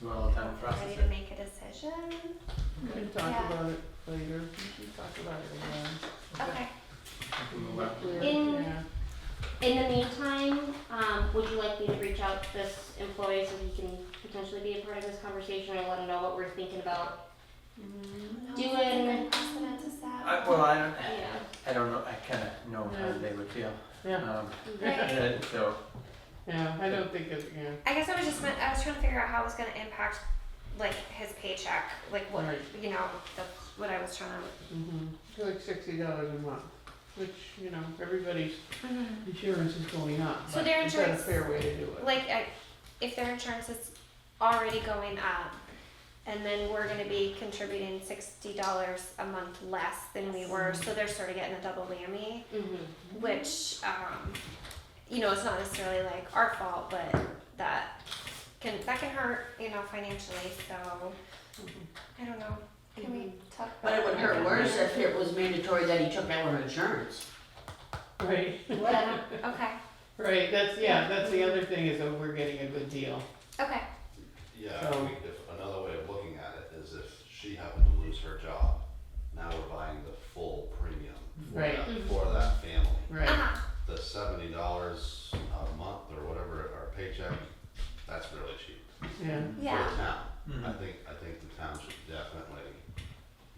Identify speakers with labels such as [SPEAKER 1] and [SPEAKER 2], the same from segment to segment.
[SPEAKER 1] You want a little time to
[SPEAKER 2] ready
[SPEAKER 1] process
[SPEAKER 2] to
[SPEAKER 1] it?
[SPEAKER 2] make a decision.
[SPEAKER 3] We can
[SPEAKER 2] Yeah.
[SPEAKER 3] talk about it later, we can talk about it again.
[SPEAKER 2] Okay.
[SPEAKER 1] We'll move on.
[SPEAKER 4] In-
[SPEAKER 3] Yeah.
[SPEAKER 4] In the meantime, um, would you like me to reach out to this employee so he can potentially be a part of this conversation and let him know what we're thinking about? Do
[SPEAKER 2] No, it's
[SPEAKER 4] an-
[SPEAKER 2] like an precedent is that
[SPEAKER 1] I, well, I don't,
[SPEAKER 4] Yeah.
[SPEAKER 1] I don't know, I kinda know how they would feel.
[SPEAKER 3] Yeah,
[SPEAKER 1] Um,
[SPEAKER 4] Mm-hmm.
[SPEAKER 2] Right.
[SPEAKER 1] and so,
[SPEAKER 3] yeah, I don't think it, yeah,
[SPEAKER 2] I guess I was just meant, I was trying to figure out how it was going to impact like his paycheck, like what
[SPEAKER 3] Right.
[SPEAKER 2] you know. That's what I was trying
[SPEAKER 3] mm-hmm, like sixty dollars a month, which, you know, everybody's
[SPEAKER 2] to.
[SPEAKER 3] Mm-hmm. insurance is going up,
[SPEAKER 2] So
[SPEAKER 3] but
[SPEAKER 2] their
[SPEAKER 3] is that a
[SPEAKER 2] insurance-
[SPEAKER 3] fair way to do it?
[SPEAKER 2] Like I, if their insurance is already going up, and then we're going to be contributing sixty dollars a month less than we were, so they're sort of getting a double whammy.
[SPEAKER 4] Mm-hmm.
[SPEAKER 2] which um, you know it's not necessarily like our fault but that can that can hurt you know financially so i don't know can we talk
[SPEAKER 5] But
[SPEAKER 2] about
[SPEAKER 5] it would hurt worse if it was mandatory that he took our insurance.
[SPEAKER 3] Right,
[SPEAKER 2] Yeah, okay
[SPEAKER 3] right, that's, yeah, that's the other thing is that we're getting a good deal,
[SPEAKER 2] okay
[SPEAKER 6] Yeah,
[SPEAKER 3] So-
[SPEAKER 6] I mean, if another way of looking at it is if she happened to lose her job, now we're buying the full premium for
[SPEAKER 3] Right.
[SPEAKER 6] that,
[SPEAKER 2] Mm-hmm.
[SPEAKER 4] Mhm.
[SPEAKER 6] for that family.
[SPEAKER 3] right,
[SPEAKER 2] uh-huh.
[SPEAKER 6] The seventy dollars a month or whatever our paycheck, that's really cheap
[SPEAKER 3] yeah,
[SPEAKER 6] for
[SPEAKER 2] yeah
[SPEAKER 6] the town. I
[SPEAKER 3] Mm-hmm.
[SPEAKER 1] mhm.
[SPEAKER 6] think, I think the town should definitely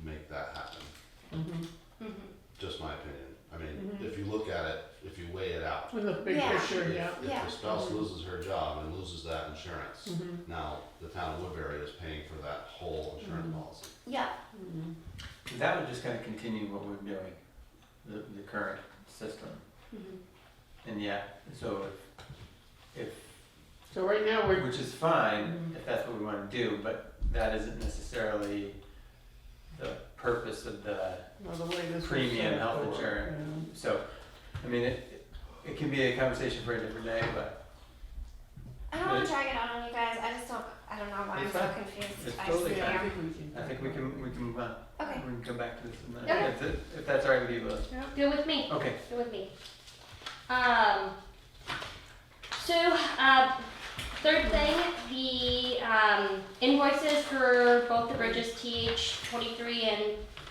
[SPEAKER 6] make that happen,
[SPEAKER 3] mm-hmm.
[SPEAKER 4] Mm-hmm.
[SPEAKER 6] just my opinion. I mean,
[SPEAKER 2] Mm-hmm.
[SPEAKER 6] if you look at it, if you weigh it out,
[SPEAKER 3] In the big
[SPEAKER 2] Yeah.
[SPEAKER 3] picture, yeah,
[SPEAKER 6] if, if
[SPEAKER 2] Yeah. Mm-hmm.
[SPEAKER 6] the spouse loses her job and loses that insurance,
[SPEAKER 3] mm-hmm,
[SPEAKER 6] now the town of Woodbury is paying for that whole insurance policy.
[SPEAKER 2] yeah
[SPEAKER 3] mm-hmm,
[SPEAKER 1] That would just kinda continue what we're doing, the, the current system.
[SPEAKER 4] Mm-hmm.
[SPEAKER 1] And yeah, so if,
[SPEAKER 3] so right now we're
[SPEAKER 1] if, which is
[SPEAKER 3] Mm-hmm.
[SPEAKER 1] fine, if that's what we wanna do, but that isn't necessarily the purpose of the
[SPEAKER 3] Well, the way this was
[SPEAKER 1] Premium
[SPEAKER 3] set
[SPEAKER 1] health
[SPEAKER 3] up,
[SPEAKER 1] insurance. So, I mean, it, it can be a conversation for a different day, but
[SPEAKER 2] i don't want to drag it out on you guys i just don't i don't know why i'm
[SPEAKER 1] It's
[SPEAKER 2] so
[SPEAKER 1] fine.
[SPEAKER 2] confused
[SPEAKER 1] It's
[SPEAKER 2] I
[SPEAKER 3] yeah.
[SPEAKER 1] totally
[SPEAKER 2] just
[SPEAKER 3] Yeah, I
[SPEAKER 2] am.
[SPEAKER 3] think we can.
[SPEAKER 1] I think we can, we can move on.
[SPEAKER 2] okay
[SPEAKER 1] We can come back to this in a
[SPEAKER 2] Okay.
[SPEAKER 1] minute, if, it- if that's all right with you, Liz.
[SPEAKER 4] Good with me.
[SPEAKER 1] Okay,
[SPEAKER 4] Go with me. Um, so, uh, third thing, the um, invoices for both the bridges TH23 and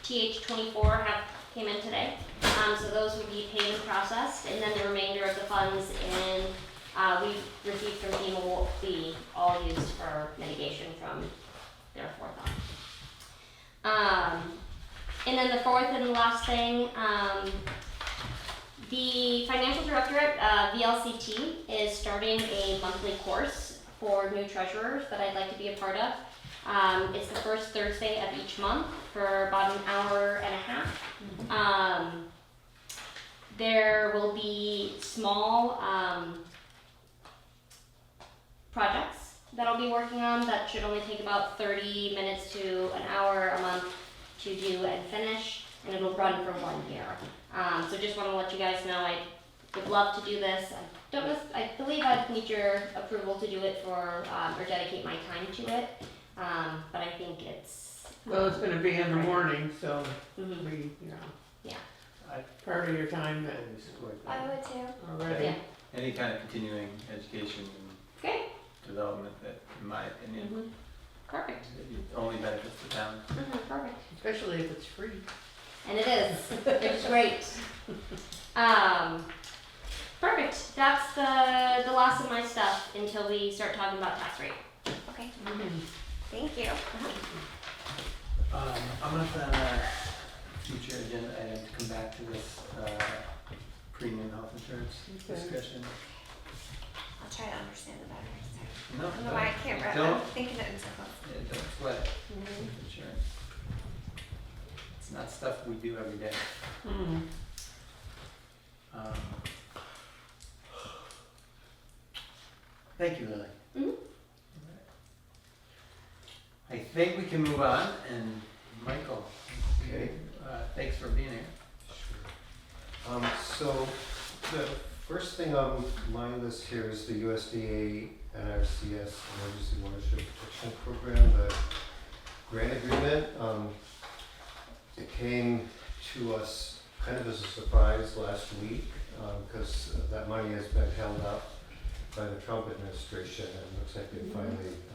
[SPEAKER 4] TH24 have came in today. Um, so those will be paid and processed, and then the remainder of the funds in uh, we received from FEMA will be all used for mitigation from their forethought. Um, and then the fourth and last thing, um, the financial director at uh, VLCT is starting a monthly course for new treasurers that I'd like to be a part of. Um, it's the first Thursday of each month for about an hour and a half. Um, there will be small um, projects that I'll be working on that should only take about 30 minutes to an hour a month to do and finish, and it'll run for one year. Um, so just want to let you guys know I would love to do this. I don't know, if- I believe I'd need your approval to do it for, um, or dedicate my time to it. Um, but I think it's.
[SPEAKER 3] Well, it's gonna be in the morning, so
[SPEAKER 4] Mhm.
[SPEAKER 3] we, you know.
[SPEAKER 4] Yeah.
[SPEAKER 1] I-
[SPEAKER 3] Part of your time
[SPEAKER 1] I
[SPEAKER 3] that
[SPEAKER 1] think we support
[SPEAKER 2] i
[SPEAKER 1] that.
[SPEAKER 2] would too
[SPEAKER 3] already,
[SPEAKER 4] Yeah.
[SPEAKER 1] Any kind of continuing education and
[SPEAKER 4] Great,
[SPEAKER 1] development that, in my opinion,
[SPEAKER 2] Mm-hmm.
[SPEAKER 4] perfect,
[SPEAKER 1] it only benefits the town.
[SPEAKER 4] Mhm, perfect.
[SPEAKER 3] especially if it's free.
[SPEAKER 4] And it is, which is great. Um, perfect, that's the, the last of my stuff until we start talking about tax rate.
[SPEAKER 2] okay
[SPEAKER 4] Mm-hmm.
[SPEAKER 2] thank you
[SPEAKER 1] Um, I'm gonna put on a future agenda item to come back to this, uh, premium health insurance
[SPEAKER 3] Okay.
[SPEAKER 1] discussion.
[SPEAKER 2] i'll try to understand it better next time.
[SPEAKER 1] No,
[SPEAKER 2] i don't know
[SPEAKER 1] don't-
[SPEAKER 2] why i can't wrap Mm-hmm. i'm
[SPEAKER 1] Don't,
[SPEAKER 2] thinking it in circles
[SPEAKER 1] yeah, don't sweat it. insurance. It's not stuff we do every day.
[SPEAKER 3] Mhm.
[SPEAKER 1] Um, Thank you, Lily.
[SPEAKER 4] Mhm.
[SPEAKER 1] I think we can move on, and Michael,
[SPEAKER 7] Okay,
[SPEAKER 1] uh, thanks for being here.
[SPEAKER 7] sure. Um, so the first thing on my list here is the USDA NRCS Emergency Watershed Protection Program, the grant agreement. Um, it came to us kind of as a surprise last week, um, because that money has been held up by the Trump administration and it looks like they finally um,